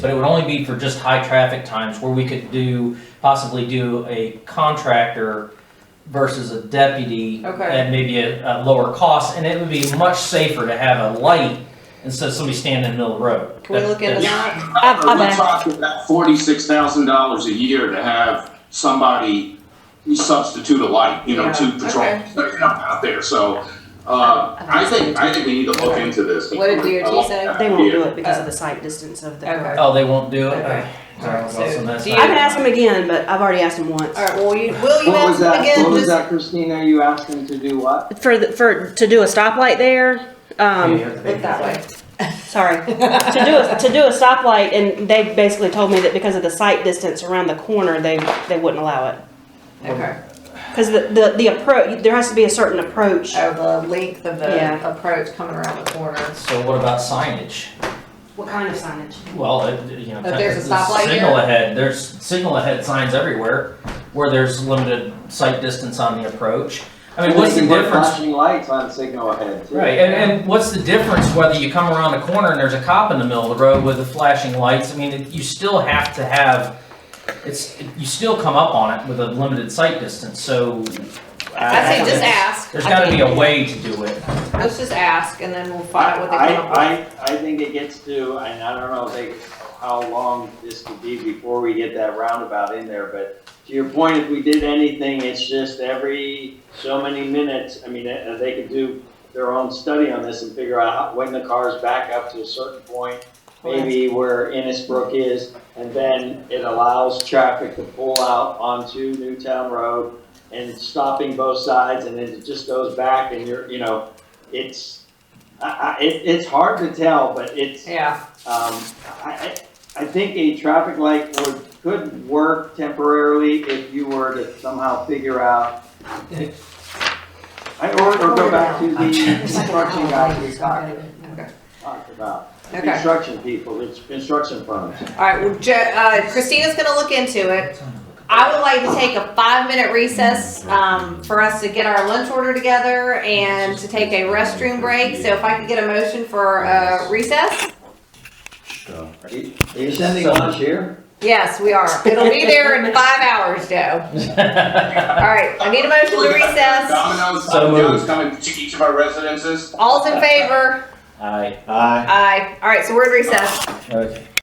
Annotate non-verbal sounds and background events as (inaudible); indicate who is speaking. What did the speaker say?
Speaker 1: But it would only be for just high traffic times where we could do, possibly do a contractor versus a deputy
Speaker 2: Okay.
Speaker 1: at maybe a, a lower cost, and it would be much safer to have a light instead of somebody standing in the middle of the road.
Speaker 2: Can we look into
Speaker 1: That's-
Speaker 2: that?
Speaker 3: I- I
Speaker 4: We're
Speaker 3: bet.
Speaker 4: talking about forty-six thousand dollars a year to have somebody substitute a light, you know,
Speaker 2: Yeah,
Speaker 4: two
Speaker 2: okay.
Speaker 4: patrols that come out there, so. Uh, I think, I think we need to look into this.
Speaker 2: What did DOT say?
Speaker 4: I
Speaker 3: They won't do
Speaker 4: like
Speaker 3: it because of the site distance of the.
Speaker 2: Okay.
Speaker 1: Oh, they won't do it?
Speaker 2: Okay.
Speaker 1: Sorry, well, so that's
Speaker 2: So, do
Speaker 1: not-
Speaker 3: I could ask them again, but I've already asked them once.
Speaker 2: All right, well, you, will you
Speaker 5: What
Speaker 2: ask
Speaker 5: was
Speaker 2: them
Speaker 5: that,
Speaker 2: again?
Speaker 5: what was
Speaker 2: Just-
Speaker 5: that Christina, you asked him to do what?
Speaker 3: For, the- for, to do a stoplight there, um,
Speaker 2: Look that way.
Speaker 3: sorry, (laughs) to do, a- to do a stoplight, and they basically told me that because of the site distance around the corner, they, they wouldn't allow it.
Speaker 2: Okay.
Speaker 3: Because the, the, the approach, there has to be a certain approach.
Speaker 2: Oh, the length of the
Speaker 3: Yeah.
Speaker 2: approach coming around the corner.
Speaker 1: So what about signage?
Speaker 3: What kind of signage?
Speaker 1: Well, it, you know.
Speaker 2: If there's a
Speaker 1: the
Speaker 2: stoplight
Speaker 1: Signal
Speaker 2: here?
Speaker 1: ahead, there's signal ahead signs everywhere where there's limited sight distance on the approach. I mean, what's
Speaker 5: They
Speaker 1: the
Speaker 5: can put
Speaker 1: difference?
Speaker 5: Flashing lights on signal ahead too.
Speaker 1: Right, and, and what's the difference whether you come around the corner and there's a cop in the middle of the road with the flashing lights? I mean, it- you still have to have, it's, you still come up on it with a limited sight distance, so.
Speaker 2: I say just ask.
Speaker 1: There's
Speaker 2: I
Speaker 1: gotta
Speaker 2: mean,
Speaker 1: be a way to do it.
Speaker 2: Let's just ask and then we'll find out what they
Speaker 5: I,
Speaker 2: come up with.
Speaker 5: I, I think it gets to, and I don't know if they, how long this could be before we get that roundabout in there, but to your point, if we did anything, it's just every so many minutes, I mean, uh, they could do their own study on this and figure out when the car's back up to a certain point, maybe where Innisbrook is, and then it allows traffic to pull out onto Newtown Road and stopping both sides, and then it just goes back and you're, you know, it's, I, I, it, it's hard to tell, but it's, um,
Speaker 2: Yeah,
Speaker 5: I, I, I think a traffic light would, could work temporarily if you were to somehow figure out. I, or, or go back to the construction guys we talked,
Speaker 2: okay,
Speaker 5: talked about,
Speaker 2: okay.
Speaker 5: construction people, it's construction firms.
Speaker 2: All right, well, Jo- uh, Christina's gonna look into it. I would like to take a five-minute recess, um, for us to get our lunch order together and to take a restroom break. So if I could get a motion for, uh, recess?
Speaker 5: Are you are you sending lunch here?
Speaker 2: Yes, we are. It'll be there in five hours, Joe. All right, I need a motion to recess.
Speaker 4: Domino's,
Speaker 1: So
Speaker 4: Domino's
Speaker 1: moved.
Speaker 4: coming to each of our residences.
Speaker 2: All's in favor?
Speaker 1: (laughs) Aye.
Speaker 6: Aye.
Speaker 2: Aye. All right, so we're in recess.
Speaker 6: Okay.